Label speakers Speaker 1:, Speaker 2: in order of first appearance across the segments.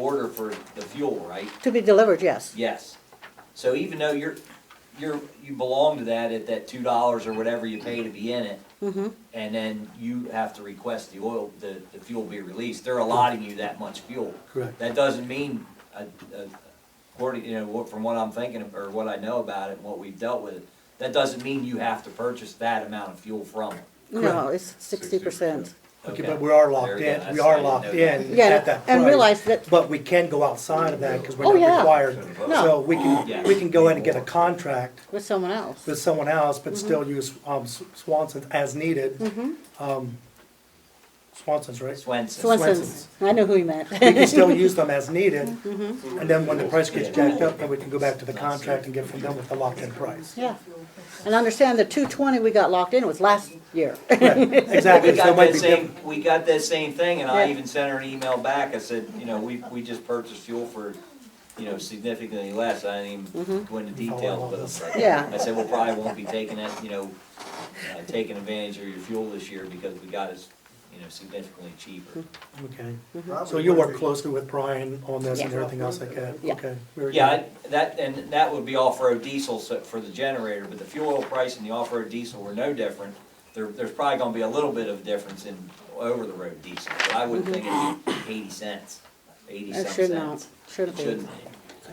Speaker 1: order for the fuel, right?
Speaker 2: To be delivered, yes.
Speaker 1: Yes. So even though you're, you're, you belong to that at that two dollars or whatever you pay to be in it,
Speaker 3: Mm-hmm.
Speaker 2: Mhm.
Speaker 1: and then you have to request the oil, the, the fuel be released, they're allotting you that much fuel.
Speaker 3: Correct.
Speaker 1: That doesn't mean, uh, uh, according, you know, what- from what I'm thinking, of or what I know about it, and what we've dealt with, that doesn't mean you have to purchase that amount of fuel from them.
Speaker 2: No, it's sixty percent.
Speaker 3: Okay, but we are locked
Speaker 1: There you
Speaker 3: in,
Speaker 1: go.
Speaker 3: we
Speaker 1: That's- I
Speaker 3: are
Speaker 1: didn't
Speaker 3: locked
Speaker 1: know that.
Speaker 3: in at
Speaker 2: Yeah,
Speaker 3: that price.
Speaker 2: and realize that,
Speaker 3: But we can go outside of that, because
Speaker 2: Oh,
Speaker 3: we're
Speaker 2: yeah.
Speaker 3: not required.
Speaker 2: No.
Speaker 3: So we can, we can go in and get a contract
Speaker 2: with someone else.
Speaker 3: with someone else, but
Speaker 2: Mm-hmm.
Speaker 3: still use, um, S- Swanson's as needed. Um, Swanson's, right?
Speaker 1: Swenson,
Speaker 2: Swenson's, I know who you meant.
Speaker 3: We can still use them as needed,
Speaker 2: Mm-hmm.
Speaker 3: and then when the price gets jacked up, then we can go back to the contract and get from them with the locked-in price.
Speaker 2: Yeah. And understand the two twenty we got locked in was last year.
Speaker 1: we
Speaker 3: Exactly, so
Speaker 1: got
Speaker 3: it might
Speaker 1: that
Speaker 3: be
Speaker 1: same,
Speaker 3: different.
Speaker 1: we got that same thing, and
Speaker 2: Yeah.
Speaker 1: I even sent her an email back, I said, you know, we, we just purchased fuel for, you know, significantly less, I didn't even
Speaker 3: Mm-hmm.
Speaker 1: go into details, but it's like-
Speaker 2: Yeah.
Speaker 1: I said, we probably won't be taking that, you know, uh, taking advantage of your fuel this year, because we got it, you know, significantly cheaper.
Speaker 3: Okay,
Speaker 4: Probably
Speaker 3: so you'll
Speaker 4: would
Speaker 3: work
Speaker 4: be.
Speaker 3: closely with Brian on this and
Speaker 2: Yeah.
Speaker 3: everything else like that,
Speaker 2: Yeah.
Speaker 3: okay? very
Speaker 1: Yeah,
Speaker 3: good.
Speaker 1: I- that, and that would be off-road diesel so- for the generator, but the fuel oil price and the off-road diesel were no different. There, there's probably gonna be a little bit of difference in over-the-road diesel, but I would think it'd be eighty cents, eighty some
Speaker 2: It should not,
Speaker 1: cents.
Speaker 2: should
Speaker 1: It shouldn't
Speaker 2: be.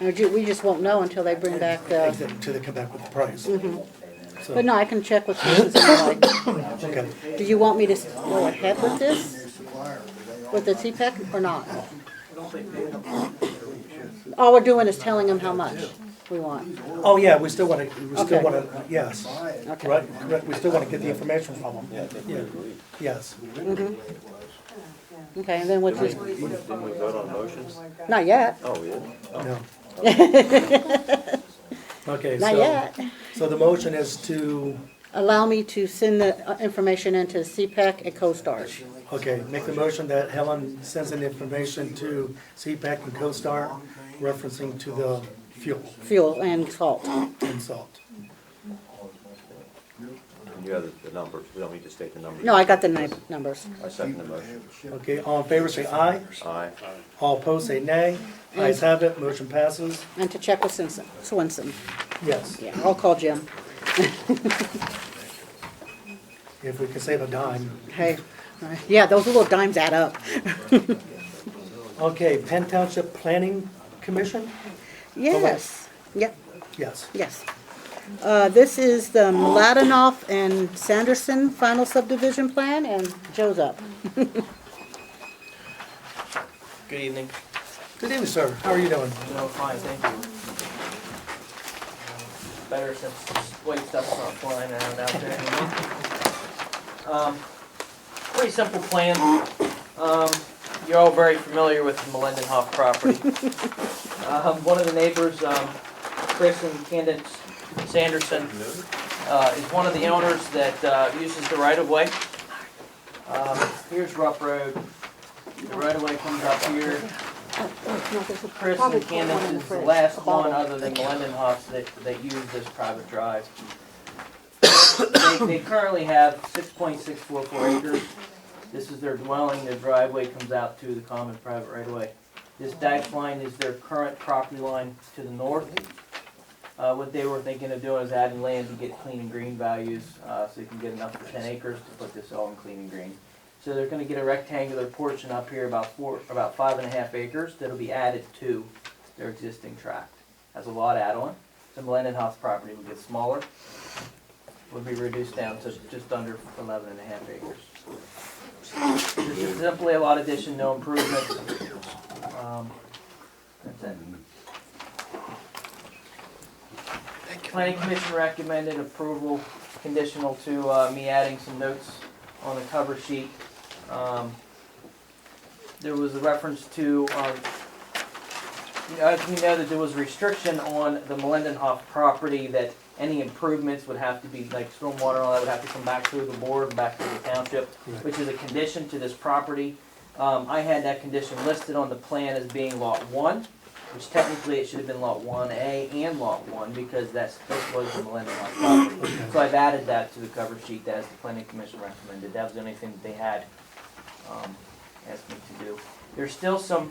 Speaker 1: be.
Speaker 2: Or ju- We just won't know until they bring back the,
Speaker 3: Until they come back with the price. So,
Speaker 2: Mm-hmm. but no, I can check with Susan. Sotomayor.
Speaker 3: okay.
Speaker 2: Do you want me to s- go ahead with this,
Speaker 4: Supplier, but they all-
Speaker 2: with the CPAC or not? All we're doing is telling them how much we want.
Speaker 3: Oh, yeah, we still wanna, we still
Speaker 2: Okay.
Speaker 3: wanna, yes, right, correct, we still wanna get the information from them. Yeah, I think we agree. Yes,
Speaker 2: Okay, and then what's this,
Speaker 5: Didn't we vote on motions?
Speaker 2: not yet,
Speaker 5: Oh, we did?
Speaker 3: no. Okay,
Speaker 2: not
Speaker 3: so,
Speaker 2: yet.
Speaker 3: so the motion is to,
Speaker 2: Allow me to send the uh, information into CPAC and CoStarz.
Speaker 3: okay, make the motion that Helen sends in information to CPAC and CoStar referencing to the fuel
Speaker 2: fuel and salt.
Speaker 3: and salt.
Speaker 5: And you have the- the numbers, we don't need to state the numbers.
Speaker 2: No, I got the nu- numbers.
Speaker 5: I second the motion.
Speaker 3: Okay, all in favor say aye,
Speaker 5: Aye.
Speaker 3: all opposed say nay,
Speaker 2: Mm.
Speaker 3: ayes have it, motion passes,
Speaker 2: And to check with Swinson- Swenson.
Speaker 3: yes.
Speaker 2: Yeah, I'll call Jim.
Speaker 3: If we can save a dime.
Speaker 2: Hey, uh, yeah, those little dimes add up.
Speaker 3: Okay, Penn Township Planning Commission?
Speaker 2: Yes, yep,
Speaker 3: Yes.
Speaker 2: yes. Uh, This is the Mladenoff and Sanderson final subdivision plan, and Joe's up.
Speaker 6: Good evening.
Speaker 3: Good evening, sir. How are you doing?
Speaker 6: No, fine, thank you. Better since white stuff's not flying around out there anymore. Um, Pretty simple plan. Um, You're all very familiar with the Melendenhoff property. Um, One of the neighbors, um, Chris and Candace Sanderson, uh, is one of the owners that uh, uses the right-of-way. Um, Here's Rough Road. The right-of-way comes up here. Chris and Candace is the last one other than Melendenhoff that, that use this private drive. They, they currently have six point six four four acres. This is their dwelling, their driveway comes out to the common private right of way. This dash line is their current property line to the north. Uh, what they were thinking of doing is adding land to get clean and green values, uh, so you can get enough for ten acres to put this all in clean and green. So they're gonna get a rectangular portion up here, about four, about five and a half acres, that'll be added to their existing tract. Has a lot add-on, the Melendenhoff property will get smaller, would be reduced down to just under eleven and a half acres. This is simply a lot addition, no improvement. Um, That's it. Planning Commission recommended approval conditional to, uh, me adding some notes on the cover sheet. Um, There was a reference to, um, you know, as we know that there was a restriction on the Melendenhoff property that any improvements would have to be, like stormwater and all that would have to come back through the board, back through the township,
Speaker 3: Correct.
Speaker 6: which is a condition to this property. Um, I had that condition listed on the plan as being lot one, which technically it should have been lot one A and lot one, because that's, this was the Melendenhoff property. So I've added that to the cover sheet as the planning commission recommended. That was the only thing that they had, um, asked me to do. There's still some